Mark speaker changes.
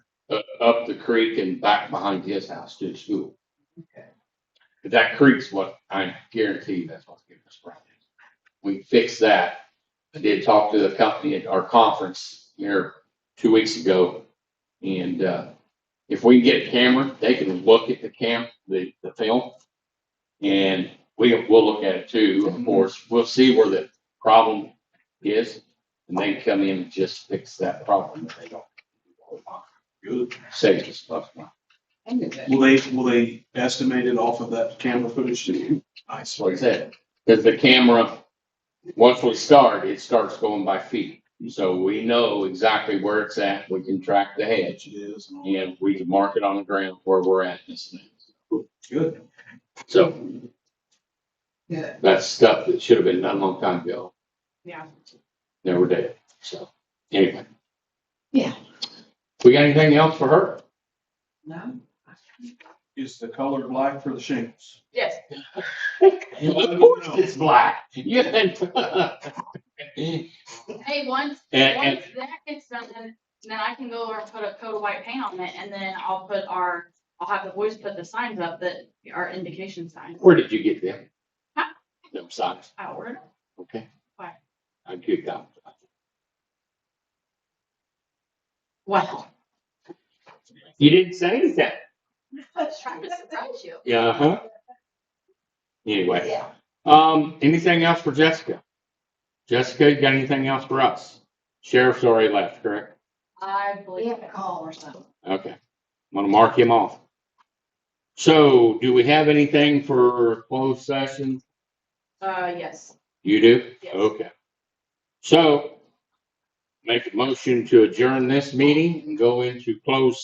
Speaker 1: uh, up the creek and back behind his house to the school.
Speaker 2: Okay.
Speaker 1: But that creek's what, I guarantee you that's what's giving us problems. We fixed that. I did talk to the company at our conference here two weeks ago. And, uh, if we can get a camera, they can look at the cam, the, the film. And we, we'll look at it too, of course. We'll see where the problem is. And they can come in and just fix that problem if they don't.
Speaker 3: Good.
Speaker 1: Save us lots of money.
Speaker 2: I knew that.
Speaker 3: Will they, will they estimate it off of that camera footage?
Speaker 1: That's
Speaker 3: Nice.
Speaker 1: what I said. Because the camera, once we start, it starts going by feet. So we know exactly where it's at. We can track the hedge
Speaker 3: It is. and all that.
Speaker 1: and we can mark it on the ground where we're at. and this and that.
Speaker 3: Good.
Speaker 1: So
Speaker 2: Good,
Speaker 1: that's stuff that should have been done a long time ago.
Speaker 2: yeah.
Speaker 1: Never did. So anyway.
Speaker 2: Yeah.
Speaker 1: We got anything else for her?
Speaker 2: No?
Speaker 3: Is the color black for the shingles?
Speaker 2: Yes.
Speaker 1: Of course it's black. Yeah. And,
Speaker 4: Hey, once,
Speaker 1: and
Speaker 4: once that gets done, then, then I can go over and put a coat of white paint on it and then I'll put our, I'll have the boys put the signs up that are indication signs.
Speaker 1: where did you get them? Them socks?
Speaker 4: Outward.
Speaker 1: Okay.
Speaker 4: Why?
Speaker 1: I kicked out.
Speaker 4: Wow.
Speaker 1: You didn't say anything.
Speaker 4: I was trying to surprise you.
Speaker 1: Yeah, uh-huh. Anyway,
Speaker 2: Yeah.
Speaker 1: um, anything else for Jessica? Jessica, you got anything else for us? Sheriff's already left, correct?
Speaker 4: I
Speaker 2: We
Speaker 4: believe
Speaker 2: have a call or something.
Speaker 1: Okay. I'm gonna mark him off. So do we have anything for closed session?
Speaker 4: Uh, yes.
Speaker 1: You do?
Speaker 4: Yes.
Speaker 1: Okay. So make a motion to adjourn this meeting and go into closed